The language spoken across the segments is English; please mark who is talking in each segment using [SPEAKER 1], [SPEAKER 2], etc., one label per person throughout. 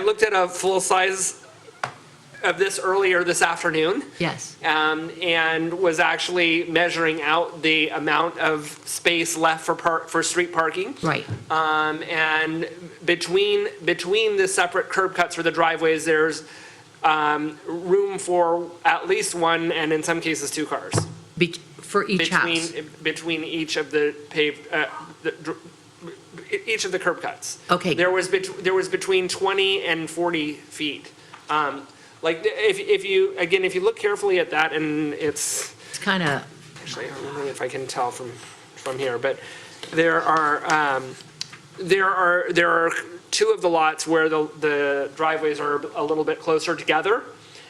[SPEAKER 1] I looked at a full size of this earlier this afternoon
[SPEAKER 2] Yes.
[SPEAKER 1] um, and was actually measuring out the amount of space left for park, for street parking.
[SPEAKER 2] Right.
[SPEAKER 1] Um, and between, between the separate curb cuts for the driveways, there's um, room for at least one and in some cases two cars.
[SPEAKER 2] Be- For each house.
[SPEAKER 1] Between, between each of the paved, uh, the dr- e- each of the curb cuts.
[SPEAKER 2] Okay.
[SPEAKER 1] There was, bet- there was between 20 and 40 feet. Um, Like, if, if you, again, if you look carefully at that, and it's,
[SPEAKER 2] It's kind of,
[SPEAKER 1] actually, I'm wondering if I can tell from, from here, but there are, um, there are, there are two of the lots where the, the driveways are a little bit closer together.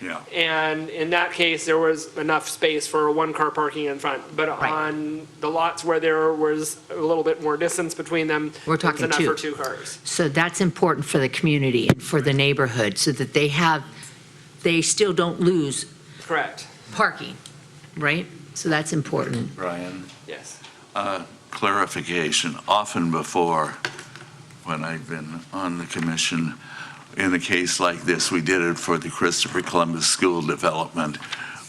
[SPEAKER 3] Yeah,
[SPEAKER 1] And in that case, there was enough space for one-car parking in front. But
[SPEAKER 2] Right.
[SPEAKER 1] on the lots where there was a little bit more distance between them,
[SPEAKER 2] We're
[SPEAKER 1] there was
[SPEAKER 2] talking two.
[SPEAKER 1] enough for two cars.
[SPEAKER 2] so that's important for the community and for the neighborhood, so that they have, they still don't lose
[SPEAKER 1] Correct,
[SPEAKER 2] parking, right? So that's important.
[SPEAKER 3] Brian. uh,
[SPEAKER 1] yes.
[SPEAKER 3] Clarification, often before, when I've been on the commission, in a case like this, we did it for the Christopher Columbus School Development.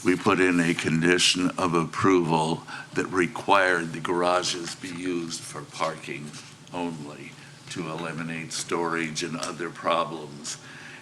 [SPEAKER 3] We put in a condition of approval that required the garages be used for parking only to eliminate storage and other problems.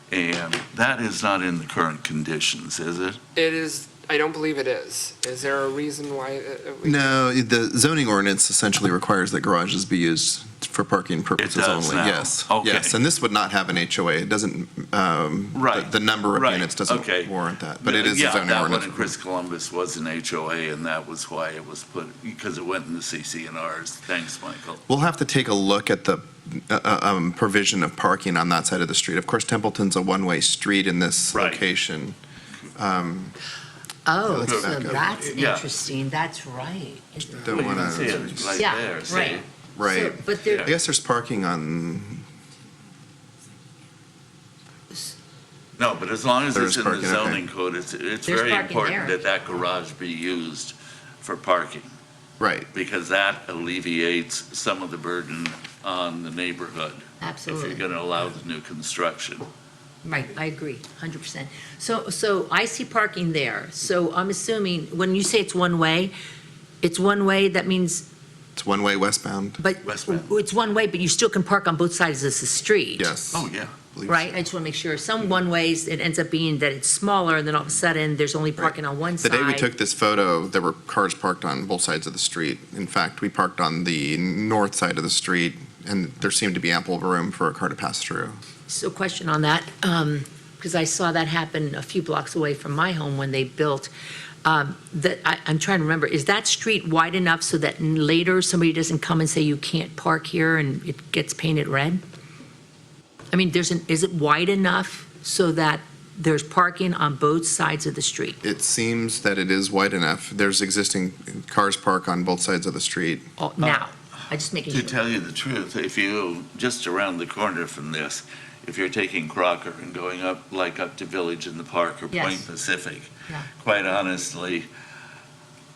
[SPEAKER 3] And that is not in the current conditions, is it?
[SPEAKER 1] It is, I don't believe it is. Is there a reason why? uh, uh, we-
[SPEAKER 4] No, the zoning ordinance essentially requires that garages be used for parking purposes
[SPEAKER 3] does
[SPEAKER 4] only.
[SPEAKER 3] now.
[SPEAKER 4] Yes.
[SPEAKER 3] Okay.
[SPEAKER 4] Yes, and this would not have an HOA. It doesn't. Um,
[SPEAKER 3] Right,
[SPEAKER 4] The, the number of
[SPEAKER 3] right,
[SPEAKER 4] units doesn't
[SPEAKER 3] okay.
[SPEAKER 4] warrant that, but it is a
[SPEAKER 3] Yeah,
[SPEAKER 4] zoning
[SPEAKER 3] that one in
[SPEAKER 4] ordinance.
[SPEAKER 3] Chris Columbus was an HOA, and that was why it was put, because it went in the CCNRs. Thanks, Michael.
[SPEAKER 4] We'll have to take a look at the uh, uh, um, provision of parking on that side of the street. Of course, Templeton's a one-way street in this
[SPEAKER 3] Right.
[SPEAKER 4] location. Um,
[SPEAKER 2] Oh,
[SPEAKER 4] let's go
[SPEAKER 2] so
[SPEAKER 4] back up.
[SPEAKER 2] that's
[SPEAKER 3] Yeah.
[SPEAKER 2] interesting, that's right.
[SPEAKER 4] Don't
[SPEAKER 3] You
[SPEAKER 4] want
[SPEAKER 3] can see
[SPEAKER 4] to.
[SPEAKER 3] it right
[SPEAKER 2] Yeah,
[SPEAKER 3] there, see?
[SPEAKER 2] right.
[SPEAKER 4] Right.
[SPEAKER 2] So- But
[SPEAKER 4] I
[SPEAKER 2] there,
[SPEAKER 4] guess there's parking on.
[SPEAKER 3] No, but as long as
[SPEAKER 4] There
[SPEAKER 3] it's
[SPEAKER 4] is
[SPEAKER 3] in the
[SPEAKER 4] parking, okay.
[SPEAKER 3] zoning code, it's, it's
[SPEAKER 2] There's
[SPEAKER 3] very
[SPEAKER 2] parking
[SPEAKER 3] important
[SPEAKER 2] there.
[SPEAKER 3] that that garage be used for parking,
[SPEAKER 4] Right.
[SPEAKER 3] because that alleviates some of the burden on the neighborhood if you're
[SPEAKER 2] absolutely,
[SPEAKER 3] going to allow the new construction.
[SPEAKER 2] right, I agree, 100%. So, so I see parking there, so I'm assuming, when you say it's one-way, it's one-way, that means
[SPEAKER 4] It's one-way westbound.
[SPEAKER 2] But
[SPEAKER 3] Westbound.
[SPEAKER 2] it's one way, but you still can park on both sides of the street.
[SPEAKER 4] Yes.
[SPEAKER 3] Oh, yeah.
[SPEAKER 4] Believe so.
[SPEAKER 2] Right? I just want to make sure. Some one ways, it ends up being that it's smaller and then all of a sudden there's only parking on one
[SPEAKER 4] The
[SPEAKER 2] side.
[SPEAKER 4] day we took this photo, there were cars parked on both sides of the street. In fact, we parked on the north side of the street, and there seemed to be ample room for a car to pass through.
[SPEAKER 2] So question on that, um, because I saw that happen a few blocks away from my home when they built. Um, that, I, I'm trying to remember, is that street wide enough so that n- later somebody doesn't come and say you can't park here and it gets painted red? I mean, there's an, is it wide enough so that there's parking on both sides of the street?
[SPEAKER 4] It seems that it is wide enough. There's existing cars parked on both sides of the street.
[SPEAKER 2] Oh, now. I just making
[SPEAKER 3] To
[SPEAKER 2] sure.
[SPEAKER 3] tell you the truth, if you, just around the corner from this, if you're taking Crocker and going up, like up to Village in the Park or
[SPEAKER 2] Yes.
[SPEAKER 3] Point Pacific,
[SPEAKER 2] Yeah.
[SPEAKER 3] quite honestly,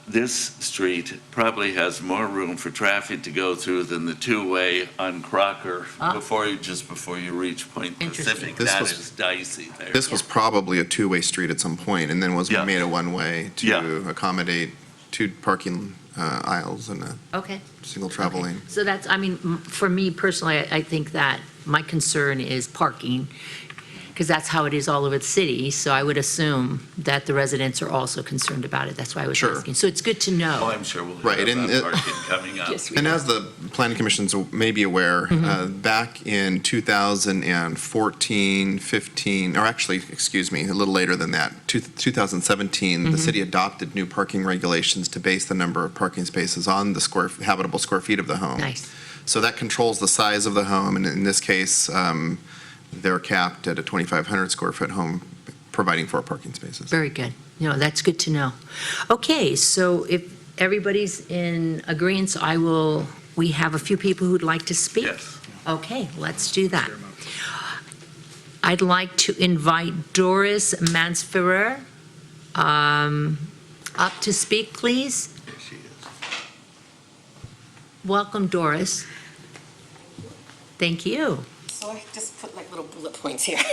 [SPEAKER 3] this street probably has more room for traffic to go through than the two-way on Crocker
[SPEAKER 2] Ah.
[SPEAKER 3] before you, just before you reach Point
[SPEAKER 2] Interesting.
[SPEAKER 3] Pacific.
[SPEAKER 4] This
[SPEAKER 3] That
[SPEAKER 4] was-
[SPEAKER 3] is dicey there.
[SPEAKER 4] This was probably a two-way street at some point, and then was
[SPEAKER 3] Yeah.
[SPEAKER 4] made a one-way to
[SPEAKER 3] Yeah.
[SPEAKER 4] accommodate two parking uh, aisles and a
[SPEAKER 2] Okay.
[SPEAKER 4] single travel
[SPEAKER 2] okay.
[SPEAKER 4] lane.
[SPEAKER 2] So that's, I mean, m- for me personally, I I think that my concern is parking, because that's how it is all over the city. So I would assume that the residents are also concerned about it. That's why I was
[SPEAKER 4] Sure.
[SPEAKER 2] asking. So it's good to
[SPEAKER 3] Oh,
[SPEAKER 2] know.
[SPEAKER 3] I'm sure we'll
[SPEAKER 4] Right,
[SPEAKER 3] hear
[SPEAKER 4] and
[SPEAKER 3] about
[SPEAKER 4] it-
[SPEAKER 3] parking coming up.
[SPEAKER 2] Yes, we
[SPEAKER 4] And
[SPEAKER 2] are.
[SPEAKER 4] as the planning commission's may be aware, uh, back in 2014, 15, or actually, excuse me, a little later than that, two- 2017, the city adopted new parking regulations to base the number of parking spaces on the square, habitable square feet of the home.
[SPEAKER 2] Nice.
[SPEAKER 4] So that controls the size of the home, and in this case, um, they're capped at a 2,500 square foot home, providing four parking spaces.
[SPEAKER 2] Very good. No, that's good to know. Okay, so if everybody's in agreeance, I will, we have a few people who'd like to speak.
[SPEAKER 3] Yes.
[SPEAKER 2] Okay, let's do that. I'd like to invite Doris Mansferrer um, up to speak, please.
[SPEAKER 3] There she is.
[SPEAKER 2] Welcome, Doris. Thank you.
[SPEAKER 5] So I just put like little bullet points here.